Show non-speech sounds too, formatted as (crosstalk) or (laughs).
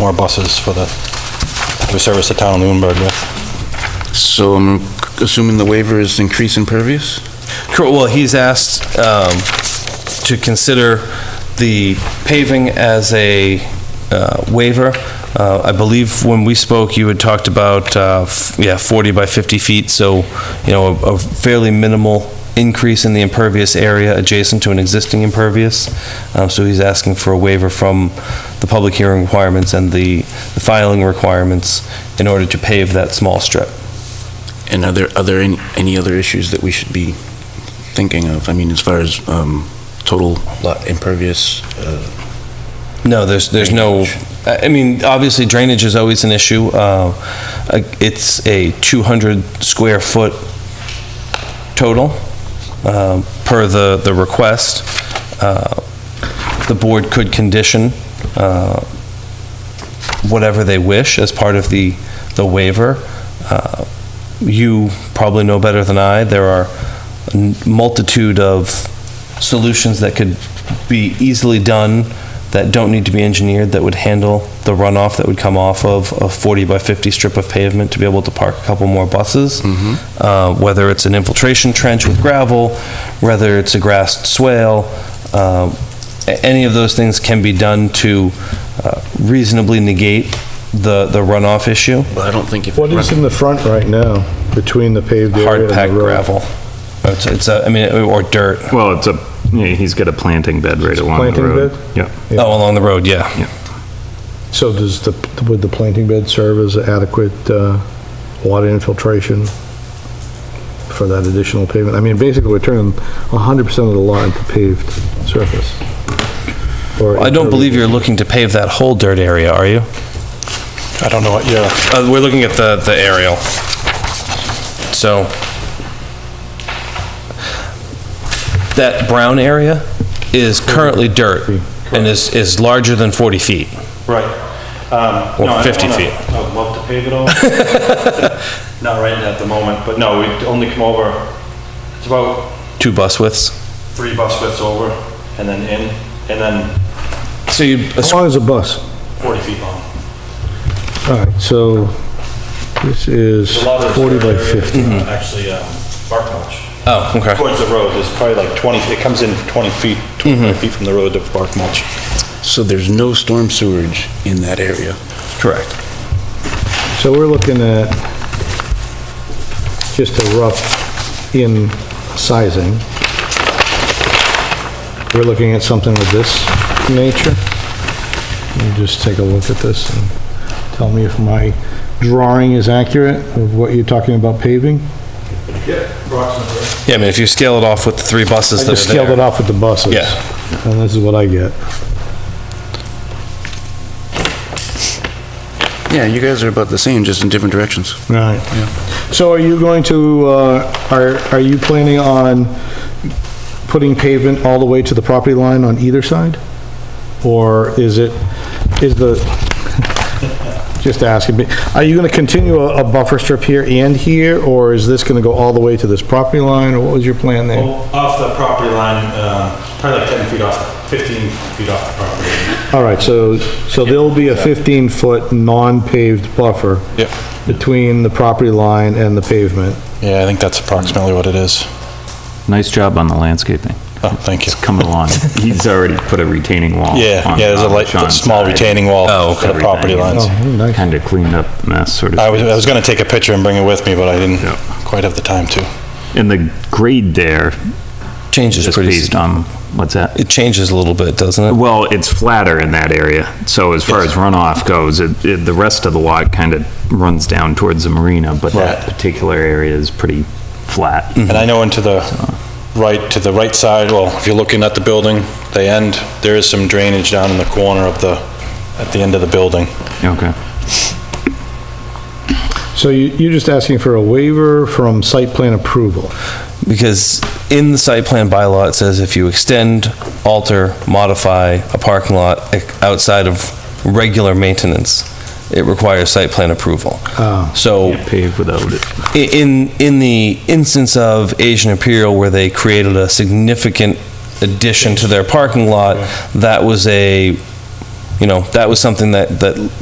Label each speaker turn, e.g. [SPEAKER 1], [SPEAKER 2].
[SPEAKER 1] more buses for the, to service the town of Lunenburg with.
[SPEAKER 2] So I'm assuming the waiver is increase impervious?
[SPEAKER 3] Cor- Well, he's asked um, to consider the paving as a uh, waiver. Uh, I believe when we spoke, you had talked about, uh, f- yeah, 40 by 50 feet, so, you know, a a fairly minimal increase in the impervious area adjacent to an existing impervious. Uh, So he's asking for a waiver from the public hearing requirements and the the filing requirements in order to pave that small strip.
[SPEAKER 2] And are there, are there any, any other issues that we should be thinking of? I mean, as far as um, total lot impervious? uh,
[SPEAKER 3] No, there's, there's no, I I mean, obviously drainage is always an issue. Uh, I- It's a 200 square foot total um, per the, the request. Uh, The board could condition uh, whatever they wish as part of the, the waiver. Uh, You probably know better than I, there are a multitude of solutions that could be easily done that don't need to be engineered, that would handle the runoff that would come off of a 40 by 50 strip of pavement to be able to park a couple more buses. Uh, Whether it's an infiltration trench with gravel, whether it's a grassed swale, uh, a- any of those things can be done to uh, reasonably negate the, the runoff issue.
[SPEAKER 2] Well, I don't think if.
[SPEAKER 4] What is in the front right now, between the paved area and
[SPEAKER 3] Hard
[SPEAKER 4] the
[SPEAKER 3] packed
[SPEAKER 4] road?
[SPEAKER 3] gravel. It's, it's, a- I mean, uh, or dirt.
[SPEAKER 5] Well, it's a, yeah, he's got a planting bed right along the
[SPEAKER 4] planting
[SPEAKER 5] road.
[SPEAKER 4] bed?
[SPEAKER 5] Yeah,
[SPEAKER 3] Oh, along the road, yeah.
[SPEAKER 4] So does the, would the planting bed serve as adequate uh, water infiltration for that additional pavement? I mean, basically, we're turning 100% of the lot into paved surface. Or
[SPEAKER 3] I don't believe you're looking to pave that whole dirt area, are you?
[SPEAKER 1] I don't know what your,
[SPEAKER 3] Uh, we're looking at the, the aerial. So. That brown area is currently dirt and is, is larger than 40 feet.
[SPEAKER 1] right. Um,
[SPEAKER 3] Well,
[SPEAKER 1] no, I don't
[SPEAKER 3] 50
[SPEAKER 1] wanna-
[SPEAKER 3] feet.
[SPEAKER 1] I would love to pave it (laughs) all. Not right at the moment, but no, we'd only come over, it's about
[SPEAKER 3] Two bus widths.
[SPEAKER 1] three bus widths over and then in, and then
[SPEAKER 3] So you,
[SPEAKER 4] As long as a bus.
[SPEAKER 1] 40 feet long.
[SPEAKER 4] All right, so this is
[SPEAKER 1] A lot of
[SPEAKER 4] 40 by
[SPEAKER 1] this area is,
[SPEAKER 4] 50.
[SPEAKER 1] uh, Actually, um, bark mulch.
[SPEAKER 3] oh, okay.
[SPEAKER 1] Towards the road, there's probably like 20, it comes in 20 feet, 25 feet from the road to bark mulch.
[SPEAKER 2] So there's no storm sewage in that area?
[SPEAKER 3] Correct.
[SPEAKER 4] So we're looking at just a rough in sizing. We're looking at something of this nature. Let me just take a look at this and tell me if my drawing is accurate of what you're talking about paving.
[SPEAKER 3] Yeah, I mean, if you scale it off with the three buses
[SPEAKER 4] I
[SPEAKER 3] that
[SPEAKER 4] just
[SPEAKER 3] are
[SPEAKER 4] scaled it
[SPEAKER 3] there.
[SPEAKER 4] off with the buses.
[SPEAKER 3] Yeah.
[SPEAKER 4] And this is what I get.
[SPEAKER 2] Yeah, you guys are about the same, just in different directions.
[SPEAKER 4] Right. So are you going to, uh, are, are you planning on putting pavement all the way to the property line on either side? Or is it, is the, (laughs) just asking, me, are you going to continue a a buffer strip here and here? Or is this going to go all the way to this property line? Or what was your plan there?
[SPEAKER 1] Well, off the property line, uh, probably like 10 feet off, 15 feet off the property.
[SPEAKER 4] All right, so, so there'll be a 15-foot non-paved buffer
[SPEAKER 1] Yep.
[SPEAKER 4] between the property line and the pavement.
[SPEAKER 1] Yeah, I think that's approximately what it is.
[SPEAKER 5] nice job on the landscaping.
[SPEAKER 1] Oh, thank you.
[SPEAKER 5] It's coming along. (laughs) He's already put a retaining wall.
[SPEAKER 1] Yeah, yeah, there's a light, small retaining wall
[SPEAKER 3] Oh,
[SPEAKER 1] for the property lines.
[SPEAKER 4] Oh, nice.
[SPEAKER 5] Kind of cleaned up mess, sort
[SPEAKER 1] I
[SPEAKER 5] of.
[SPEAKER 1] was, I was gonna take a picture and bring it with me, but I didn't
[SPEAKER 5] Yeah.
[SPEAKER 1] quite have the time to.
[SPEAKER 5] And the grade there
[SPEAKER 3] Changes
[SPEAKER 5] is
[SPEAKER 3] pretty,
[SPEAKER 5] based on, what's that?
[SPEAKER 3] it changes a little bit, doesn't it?
[SPEAKER 5] Well, it's flatter in that area, so as far as runoff goes, it, it, the rest of the lot kind of runs down towards the marina, but that
[SPEAKER 1] Right.
[SPEAKER 5] particular area is pretty flat.
[SPEAKER 1] And I know into the right, to the right side, well, if you're looking at the building, the end, there is some drainage down in the corner of the, at the end of the building.
[SPEAKER 5] Okay.
[SPEAKER 4] So you, you're just asking for a waiver from site plan approval?
[SPEAKER 3] Because in the site plan bylaw, it says if you extend, alter, modify a parking lot e- outside of regular maintenance, it requires site plan approval.
[SPEAKER 4] Oh.
[SPEAKER 3] So
[SPEAKER 5] Can't pave without it.
[SPEAKER 3] i- in, in the instance of Asian Imperial where they created a significant addition to their parking lot, that was a, you know, that was something that, that